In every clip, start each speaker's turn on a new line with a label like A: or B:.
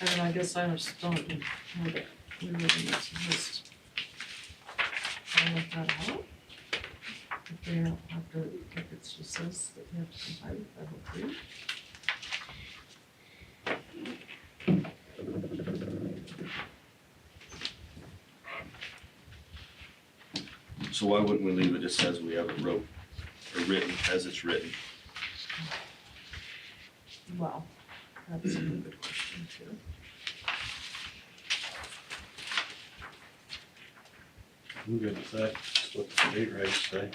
A: And I guess I just don't know that we really need to just. I let that out. If they don't have to, if it's just says that they have to comply with that whole thing.
B: So why wouldn't we leave it just as we have it wrote, or written, as it's written?
A: Well, that's a good question too.
C: I'm good with that, just what the state rights say.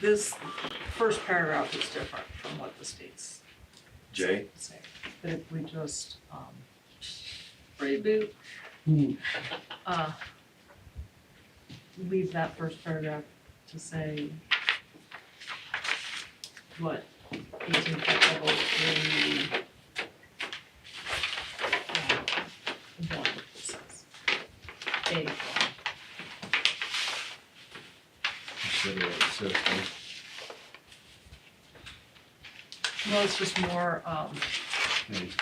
A: This first paragraph is different from what the state's
B: Jay?
A: saying. But if we just, um, reboot,
C: Hmm.
A: uh, leave that first paragraph to say what eighteen foot level three um, one says. A one.
C: Consider what it says, huh?
A: Well, it's just more, um,
C: Yeah, it's good.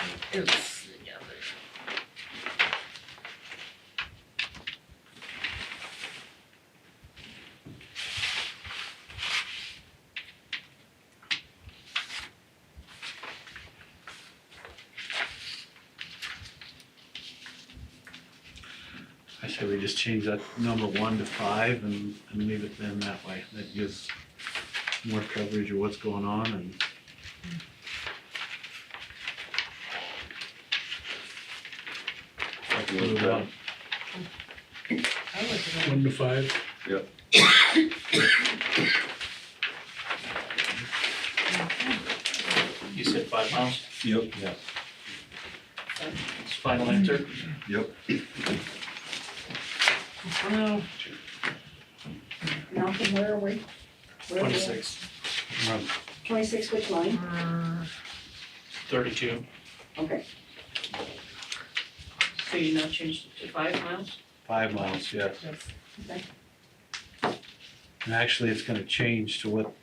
A: it's, yeah, there.
C: I say we just change that number one to five and, and leave it then that way. That gives more coverage of what's going on and.
B: I can look it up.
A: I looked at it.
D: One to five?
B: Yep.
E: You said five miles,
B: Yep.
E: it's final answer?
B: Yep.
A: Well,
F: Malcolm, where are we? Where are we at?
E: Twenty-six,
C: Run.
F: Twenty-six, which line?
A: uh,
E: thirty-two,
F: Okay,
G: So you now changed it to five miles?
C: Five miles, yes.
A: that's-
C: And actually, it's gonna change to what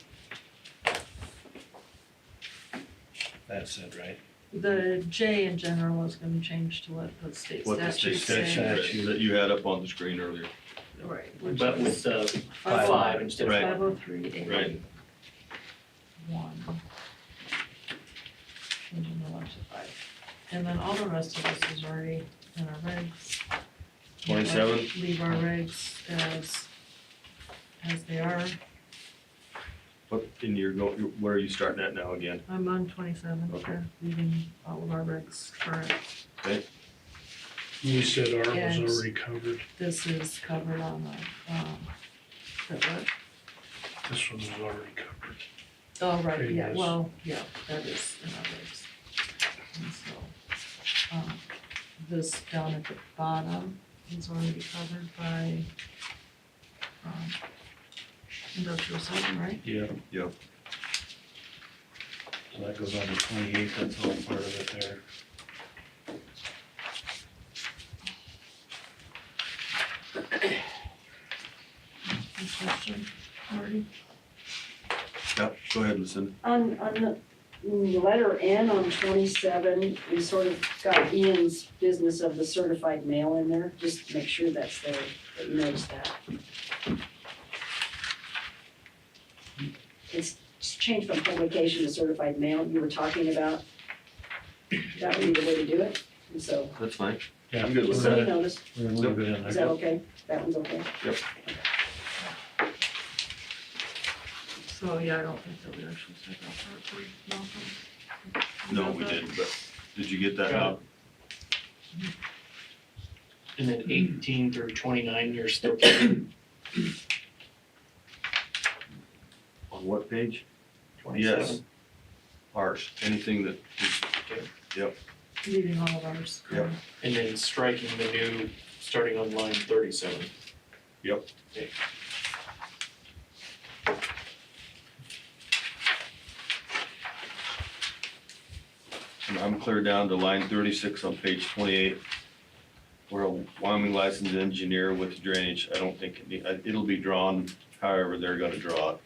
C: that said, right?
A: the J in general is gonna change to what the state
C: What the
A: statute
C: state
A: says.
C: statute-
B: That you had up on the screen earlier.
A: Right, which
E: but
A: is
E: with uh
C: Five.
E: five instead of
B: Right.
A: five oh three eight
B: Right.
A: one. Changing the one to five. And then all the rest of this is already in our regs.
B: Twenty-seven?
A: Leave our regs as, as they are.
B: What, and you're going, where are you starting at now again?
A: I'm on twenty-seven,
B: Okay.
A: leaving all of our regs current.
D: You said R was
A: Yes.
D: already covered,
A: This is covered on the, um, the what?
D: this one was already covered.
A: Oh, right, yeah,
D: Previous.
A: well, yeah, that is in our regs. And so, um, this down at the bottom is already covered by, um, industrial zoning, right?
C: Yeah.
B: Yep.
C: So that goes on to twenty-eight, that's all part of it there.
A: Any question, Marty?
B: Yep, go ahead, Lucinda.
F: on, on the, mm, the letter N on twenty-seven, we sort of got Ian's business of the certified mail in there, just to make sure that's there, that you notice that. It's just changed from publication to certified mail, you were talking about, that would be the way to do it, and so,
B: That's fine.
C: Yeah.
B: I'm good with
F: just
C: we're
F: so you
C: gonna-
F: notice,
C: We're gonna leave it in
F: is
C: there.
F: that okay? That one's okay?
A: So, yeah, I don't think that we actually said that part for Malcolm. You
B: No,
A: got
B: we
A: that?
B: didn't, but did you get that
E: Got it.
B: out?
E: and then eighteen through twenty-nine, you're still keeping
B: On what page? Yes.
E: twenty-seven.
B: Ours, anything that,
A: Leaving all of ours
B: Yep.
A: current.
E: And then striking the new, starting on line thirty-seven.
B: Yep.
E: Okay.
B: and I'm clear down to line thirty-six on page twenty-eight. Where a Wyoming licensed engineer with drainage, I don't think, it need- it'll be drawn however they're gonna draw it.